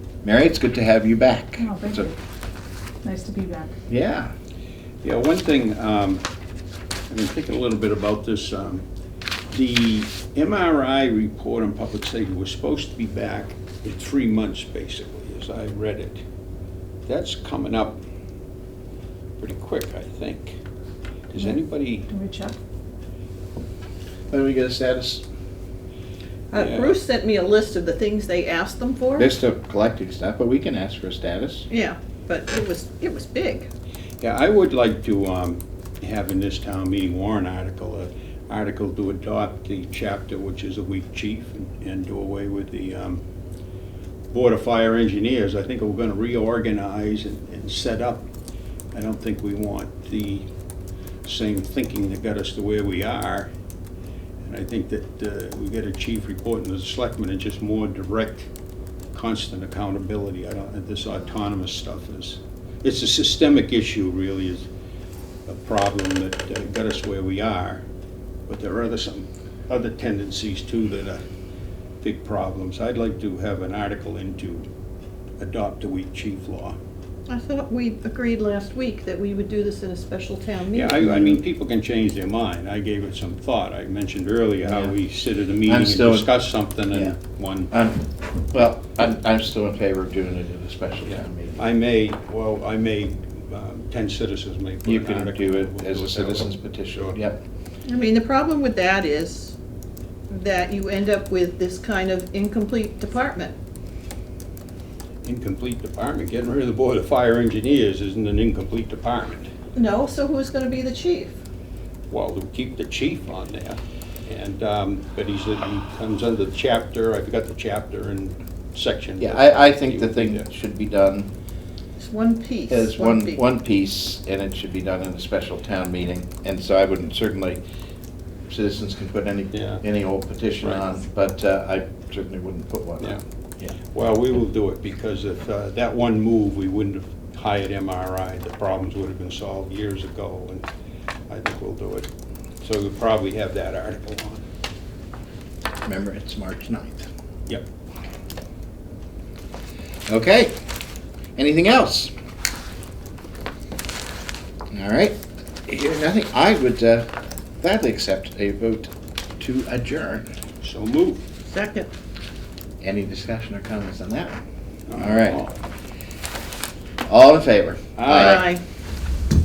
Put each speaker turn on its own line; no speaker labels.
Mary, it's good to have you back.
Oh, thank
So-
you. Nice to be back.
Yeah,
Yeah, one thing, um, I've been thinking a little bit about this. um, The MRI report on public safety was supposed to be back in three months, basically, as I read it. That's coming up pretty quick, I think. Does anybody,
Can we check?
when we get a status,
Uh,
Yeah.
Bruce sent me a list of the things they asked them for.
they're still collecting stuff, but we can ask for a status.
Yeah, but it was, it was big.
yeah, I would like to um, have in this town meeting warrant article, an article to adopt the chapter which is a weak chief and- and do away with the um, Board of Fire Engineers, I think we're gonna reorganize and, and set up. I don't think we want the same thinking that got us to where we are. And I think that, uh, we get a chief reporting to the selectmen and just more direct, constant accountability. I don't, this autonomous stuff is, it's a systemic issue really, is a problem that uh, got us where we are. But there are other, some other tendencies too that are big problems. I'd like to have an article into adopt a weak chief law.
I thought we agreed last week that we would do this in a special town
Yeah,
meeting.
I, I mean, people can change their mind. I gave it some thought. I mentioned earlier how
Yeah.
we sit at a meeting
I'm
and
still-
discuss something
Yeah.
and one,
Um, well, I'm, I'm still in favor of doing it at a special town meeting.
I may, well, I may, um, ten citizens may put
You
an
can
article.
do
We'll
it as a
that
citizen's
way.
petition,
Sure.
yep.
I mean, the problem with that is that you end up with this kind of incomplete department.
Incomplete department. Getting rid of the Board of Fire Engineers isn't an incomplete department.
No, so who's gonna be the chief?
Well, we keep the chief on there, and, um, but he's, he comes under the chapter, I forgot the chapter and section.
Yeah,
but
I, I think the
he-
thing that should be done
It's one piece.
is one,
piece.
one piece, and it should be done in a special town meeting. And so I wouldn't, certainly, citizens can put any,
Yeah.
any old petition
Right.
on, but uh, I certainly wouldn't put one
Yeah.
on. Yeah.
Well, we will do it, because if uh, that one move, we wouldn't have hired MRI, the problems would have been solved years ago, and I think we'll do it. So we'll probably have that article on.
Remember, it's March 9th.
Yep.
Okay. Anything else? All right. Hearing nothing, I would uh, gladly accept a vote to adjourn.
So move.
Second.
Any discussion or comments on that? All right. All in favor?
Aye.
Aye.